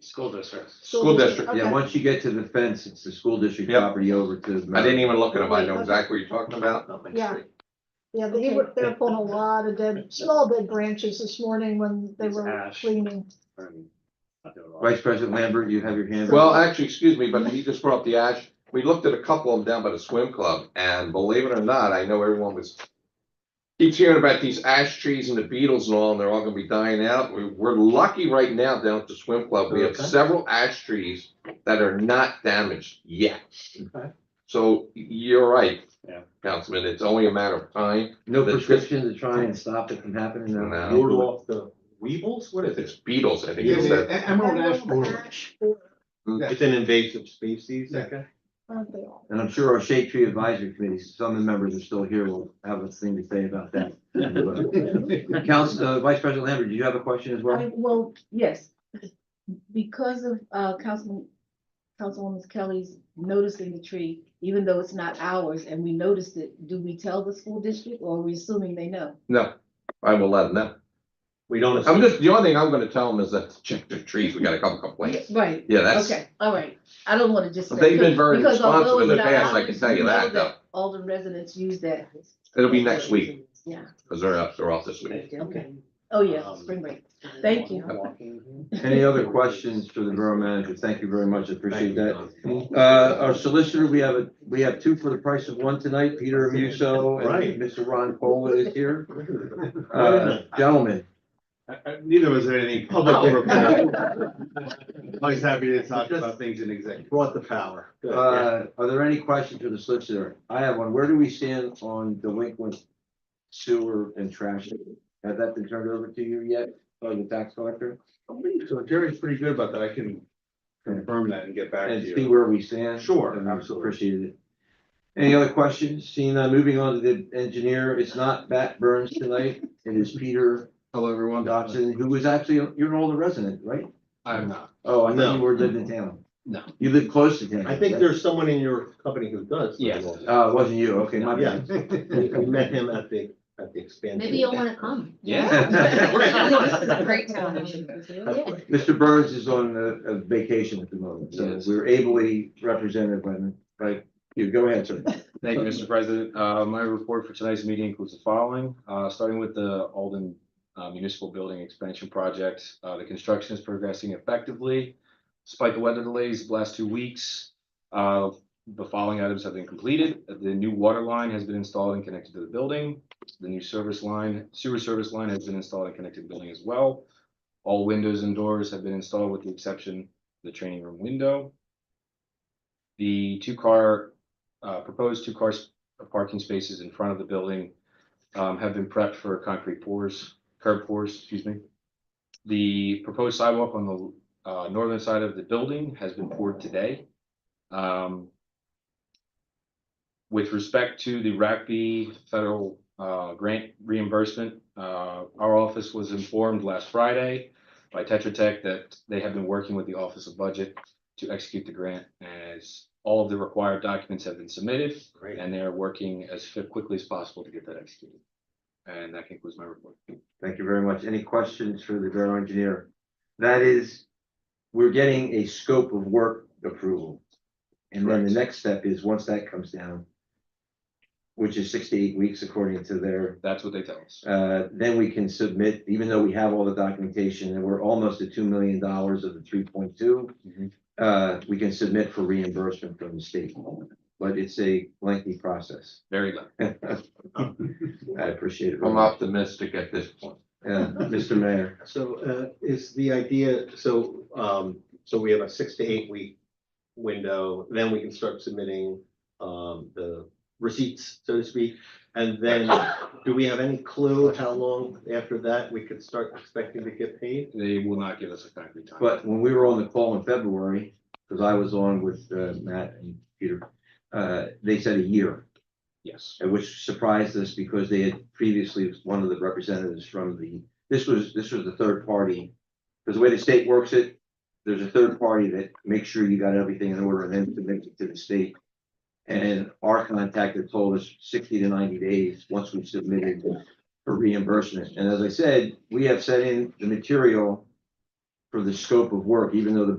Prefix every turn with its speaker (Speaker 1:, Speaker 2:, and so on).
Speaker 1: School districts.
Speaker 2: School district,
Speaker 3: Yeah,
Speaker 2: okay.
Speaker 3: once you get to the fence, it's the school district
Speaker 4: Yep.
Speaker 3: property over to. the-
Speaker 4: I didn't even look at them. I know exactly what you're talking about.
Speaker 2: Yeah. Yeah, they were, they were pulling a lot of dead, small dead branches this morning when they
Speaker 1: It's
Speaker 2: were
Speaker 1: ash.
Speaker 2: cleaning.
Speaker 3: Vice President Lambert, you have your hand.
Speaker 4: Well, actually, excuse me, but you just brought up the ash. We looked at a couple of them down by the swim club and believe it or not, I know everyone was keeps hearing about these ash trees and the beetles and all, and they're all gonna be dying out. We, we're lucky right now down at the swim club. We have
Speaker 3: Okay.
Speaker 4: several ash trees that are not damaged yet.
Speaker 3: Okay.
Speaker 4: So you're right.
Speaker 1: Yeah.
Speaker 4: Councilman, it's only a matter of time.
Speaker 3: No
Speaker 4: the-
Speaker 3: prescription to try and stop it from happening. no?
Speaker 4: No.
Speaker 5: ward off the weevils, what is
Speaker 4: It's
Speaker 5: it?
Speaker 4: beetles, I think.
Speaker 5: Yeah,
Speaker 4: it's
Speaker 5: the
Speaker 4: that-
Speaker 5: e- Emerald ash borer.
Speaker 2: Ash borer,
Speaker 5: It's
Speaker 6: an invasive species,
Speaker 5: I
Speaker 2: Aren't they all?
Speaker 3: And I'm sure our shade tree advisory committee, some of the members are still here, will have a thing to say about that. Council, uh, Vice President Lambert, do you have a question as well?
Speaker 7: I, well, yes, because of, uh, Councilman, Councilwoman Kelly's noticing the tree, even though it's not ours and we noticed it, do we tell the school district or are we assuming they know?
Speaker 4: No, I will let them know.
Speaker 6: We don't.
Speaker 4: I'm just, the only thing I'm gonna tell them is that to check their trees, we got a couple complaints.
Speaker 7: Right,
Speaker 4: Yeah, that's,
Speaker 7: okay, all right. I don't wanna just. say-
Speaker 4: they've been very
Speaker 7: because
Speaker 4: responsive
Speaker 7: although
Speaker 4: in the
Speaker 7: it's not
Speaker 4: past, I
Speaker 7: ours,
Speaker 4: can tell
Speaker 7: we
Speaker 4: you
Speaker 7: know
Speaker 4: that, though.
Speaker 7: Alden residents use that.
Speaker 4: It'll be next week,
Speaker 7: Yeah,
Speaker 4: because they're up, they're off this week.
Speaker 7: okay. Oh, yeah, spring break.
Speaker 4: Um,
Speaker 7: Thank you.
Speaker 3: Any other questions for the borough manager? Thank you very much. I appreciate that. Uh, our solicitor, we have, a we have two for the price of one tonight. Peter Amuso
Speaker 6: Right.
Speaker 3: and Mr. Ron Cola is here. Uh, gentlemen,
Speaker 6: I- Neither was there anything public to report. Always happy to talk about things in executive. Brought the power.
Speaker 3: Uh, are there any questions for the solicitor? I have one. Where do we stand on delinquent sewer and trash? Has that been turned over to you yet, by the tax collector?
Speaker 6: So Jerry's pretty good about that. I can confirm that and get back to
Speaker 3: And see
Speaker 6: you.
Speaker 3: where we stand?
Speaker 6: Sure,
Speaker 3: And I
Speaker 6: absolutely.
Speaker 3: Appreciate it. Any other questions? Seeing none, moving on to the engineer, it's not Matt Burns tonight, it is Peter
Speaker 6: Hello, everyone.
Speaker 3: Dodson, who was actually, you're an older resident, right?
Speaker 6: I'm not.
Speaker 3: Oh, I know
Speaker 6: No.
Speaker 3: you were living in town.
Speaker 6: No.
Speaker 3: You live close to town.
Speaker 6: I think there's someone in your company who does.
Speaker 5: Yes.
Speaker 3: Uh, it wasn't you, okay, my
Speaker 6: Yeah.
Speaker 3: bad.
Speaker 6: We we met him at the, at the expansion.
Speaker 8: Maybe you'll wanna come. This is a
Speaker 3: Yeah.
Speaker 8: great town. Yeah.
Speaker 3: Mr. Burns is on a, a vacation at the moment, so
Speaker 9: Yes.
Speaker 3: we're ably represented by, by you. Go ahead, sir.
Speaker 9: Thank you, Mr. President. Uh, my report for tonight's meeting includes the following, uh, starting with the Alden uh, Municipal Building Expansion Project. Uh, the construction is progressing effectively. Spike of weather delays the last two weeks. Uh, the following items have been completed. The new water line has been installed and connected to the building. The new service line, sewer service line has been installed and connected to the building as well. All windows and doors have been installed with the exception of the training room window. The two-car uh, proposed two cars, parking spaces in front of the building, um, have been prepped for concrete pours, curb pours, excuse me. The proposed sidewalk on the, uh, northern side of the building has been poured today. Um, with respect to the RACB federal, uh, grant reimbursement, uh, our office was informed last Friday by Tetra Tech that they have been working with the Office of Budget to execute the grant as all of the required documents have been submitted
Speaker 6: Great.
Speaker 9: and they are working as fi- quickly as possible to get that executed. And that concludes my report.
Speaker 3: Thank you very much. Any questions for the borough engineer? That is, we're getting a scope of work approval. And then the next step is, once that comes down, which is six to eight weeks according to their
Speaker 9: That's what they tell us.
Speaker 3: Uh, then we can submit, even though we have all the documentation and we're almost at two million dollars of the three point two.
Speaker 9: Mhm.
Speaker 3: Uh, we can submit for reimbursement from the state, but it's a lengthy process.
Speaker 9: Very low.
Speaker 3: I appreciate it. very
Speaker 4: I'm
Speaker 3: much.
Speaker 4: optimistic at this point.
Speaker 3: Yeah, Mr. Mayor,
Speaker 6: So uh, is the idea, so, um, so we have a six to eight week window, then we can start submitting um, the receipts, so to speak. And then, do we have any clue how long after that we could start expecting to get paid?
Speaker 9: They will not give us a concrete time.
Speaker 3: but when we were on the call in February, because I was on with uh, Matt and Peter, uh, they said a year.
Speaker 9: Yes,
Speaker 3: uh, which surprised us because they had previously, one of the representatives from the, this was, this was the third party. Because the way the state works it, there's a third party that makes sure you got everything in order and then submits it to the state. And our contact had told us sixty to ninety days once we submitted for reimbursement. And as I said, we have sent in the material for the scope of work, even though the